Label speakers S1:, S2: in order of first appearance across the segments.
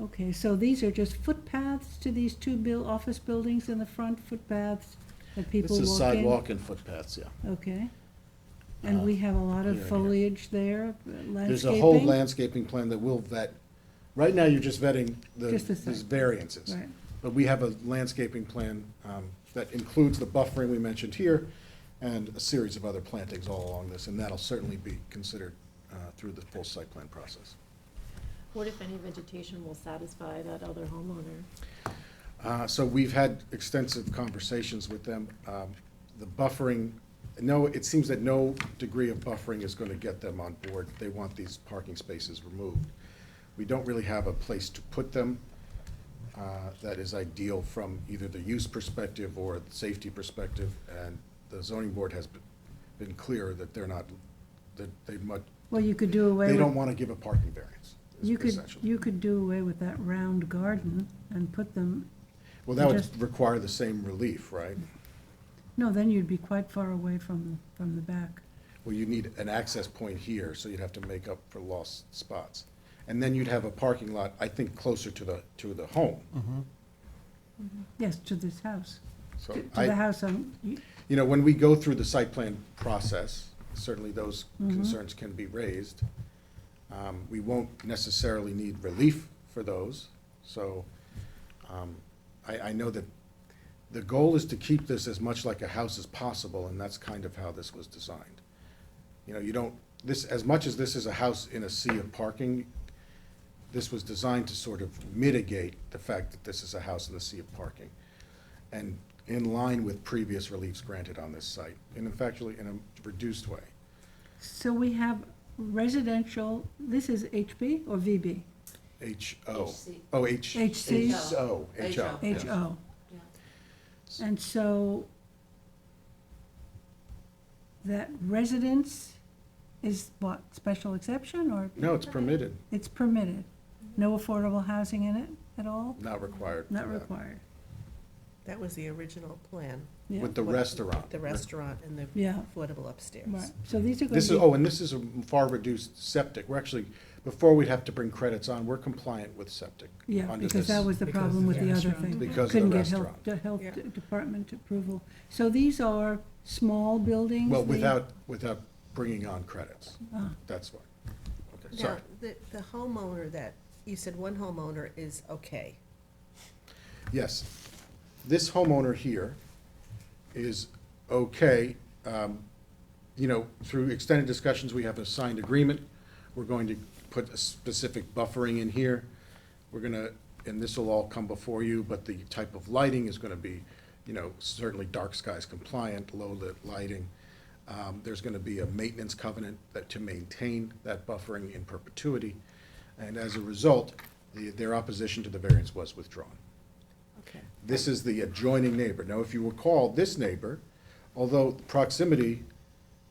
S1: Okay, so these are just footpaths to these two buil, office buildings in the front, footpaths that people
S2: This
S1: walk in?
S2: is sidewalk and footpaths, yeah.
S1: Okay. And
S2: Uh,
S1: we have a lot
S2: here,
S1: of
S2: here.
S1: foliage there, uh, landscaping?
S2: There's a whole landscaping plan that will vet. Right now, you're just vetting the,
S1: Just the site.
S2: these variances.
S1: Right.
S2: But we have a landscaping plan um, that includes the buffering we mentioned here and a series of other plantings all along this, and that'll certainly be considered uh, through the full site plan process.
S3: What if any vegetation will satisfy that other homeowner?
S2: Uh, So we've had extensive conversations with them. Um, The buffering, no, it seems that no degree of buffering is going to get them on board. They want these parking spaces removed. We don't really have a place to put them uh, that is ideal from either the use perspective or the safety perspective. And the zoning board has been- been clear that they're not, that they much,
S1: Well, you could do away with.
S2: they don't want to give a parking variance, is
S1: You could,
S2: essentially.
S1: you could do away with that round garden and put them,
S2: Well, that
S1: just-
S2: would require the same relief, right?
S1: no, then you'd be quite far away from, from the back.
S2: Well, you need an access point here, so you'd have to make up for lost spots. And then you'd have a parking lot, I think, closer to the, to the home.
S1: Yes, to this house,
S2: So
S1: to to the
S2: I,
S1: house um, on, you-
S2: you know, when we go through the site plan process, certainly those concerns can be raised. Um, We won't necessarily need relief for those, so um, I, I know that the goal is to keep this as much like a house as possible, and that's kind of how this was designed. You know, you don't, this, as much as this is a house in a sea of parking, this was designed to sort of mitigate the fact that this is a house in the sea of parking. And in line with previous reliefs granted on this site, and in factually, in a reduced way.
S1: so we have residential, this is HB or VB?
S2: H O.
S4: HC.
S2: Oh, H.
S1: HC.
S2: H O, H O. yeah.
S1: HO.
S4: Yeah.
S1: And so that residence is what, special exception or
S2: No, it's permitted,
S1: it's permitted? No affordable housing in it at all?
S2: not required. for
S1: Not
S2: that.
S1: required,
S5: That was the original plan,
S1: yeah,
S2: With the
S5: What-
S2: restaurant.
S5: the restaurant and the
S1: yeah,
S5: affordable upstairs.
S1: right, so these are going to be.
S2: This is, oh, and this is a far reduced septic. We're actually, before we'd have to bring credits on, we're compliant with septic.
S1: Yeah,
S2: under
S1: because that
S2: this-
S1: was the
S6: Because of
S1: problem with
S6: the
S1: the other
S6: restaurant.
S1: thing.
S2: Because of the
S1: Couldn't get health,
S2: restaurant.
S1: the health
S5: Yeah.
S1: de- department approval. So these are small buildings?
S2: Well,
S1: they-
S2: without, without bringing on credits.
S1: Ah.
S2: That's why. Okay,
S5: Now,
S2: sorry.
S5: the, the homeowner that, you said one homeowner is okay.
S2: Yes. This homeowner here is okay. um, You know, through extended discussions, we have a signed agreement. We're going to put a specific buffering in here. We're gonna, and this will all come before you, but the type of lighting is gonna be, you know, certainly dark skies compliant, low-lit lighting. Um, There's gonna be a maintenance covenant that, to maintain that buffering in perpetuity. And as a result, the- their opposition to the variance was withdrawn.
S5: Okay.
S2: This is the adjoining neighbor. Now, if you recall, this neighbor, although proximity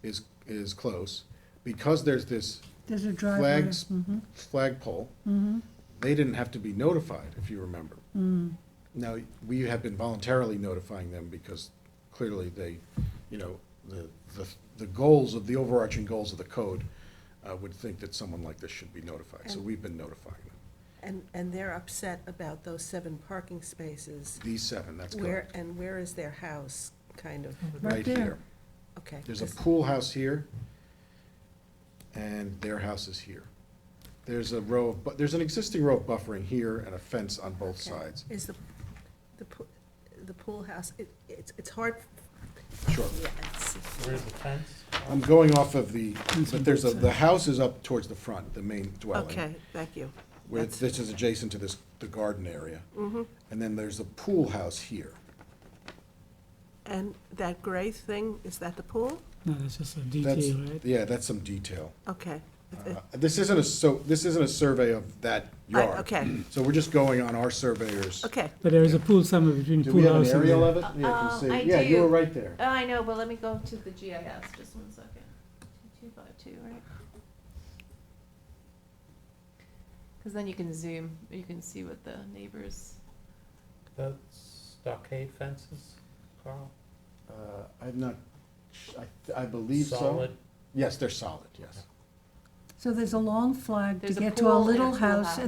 S2: is, is close, because there's this
S1: There's a driveway.
S2: flags, flagpole, they didn't have to be notified, if you remember. Now, we have been voluntarily notifying them because clearly they, you know, the, the, the goals of, the overarching goals of the code uh, would think that someone like this should be notified, so
S5: And-
S2: we've been notifying them.
S5: And, and they're upset about those seven parking spaces.
S2: These seven, that's
S5: Where,
S2: correct.
S5: and where is their house, kind of,
S1: Right there.
S2: here.
S5: okay.
S2: There's a
S5: this-
S2: pool house here, and their house is here. There's a row of, but there's an existing row of buffering here and a fence on both
S5: okay.
S2: sides.
S5: Is the, the, poo- the pool house, it, it's, it's hard,
S2: Sure.
S5: yeah, it's,
S6: Where's the fence?
S2: I'm going off of the, but there's a, the house is up towards the front, the main dwelling.
S5: okay, thank you.
S2: Where
S5: That's- Mm-hmm.
S2: this is adjacent to this, the garden area. And then there's a pool house here.
S5: And that gray thing, is that the pool?
S6: No, that's just a
S2: That's,
S6: detail, right?
S2: yeah, that's some detail.
S5: Okay.
S2: Uh, This isn't a, so, this isn't a survey of that
S5: I-
S2: yard.
S5: okay.
S2: So we're just going on our surveyor's.
S5: Okay,
S6: But there is a pool somewhere between
S2: Do we
S6: pool
S2: have
S6: house
S2: an
S6: and.
S2: aerial
S6: the-
S2: of it? Yeah, you
S4: Uh,
S2: can see.
S4: I
S2: Yeah, you
S4: do.
S2: were right there.
S4: Oh, I know, but let me go to the GIS, just one second. Two five two, right? Because then you can zoom, you can see what the neighbors.
S6: The stockade fences, Carl?
S2: Uh, I'm not, sh- I, I believe so.
S6: Solid,
S2: Yes, they're solid, yes.
S1: So there's a long flag to
S4: There's a
S1: get to a
S4: pool and a
S1: little
S4: pool
S1: house,
S4: house.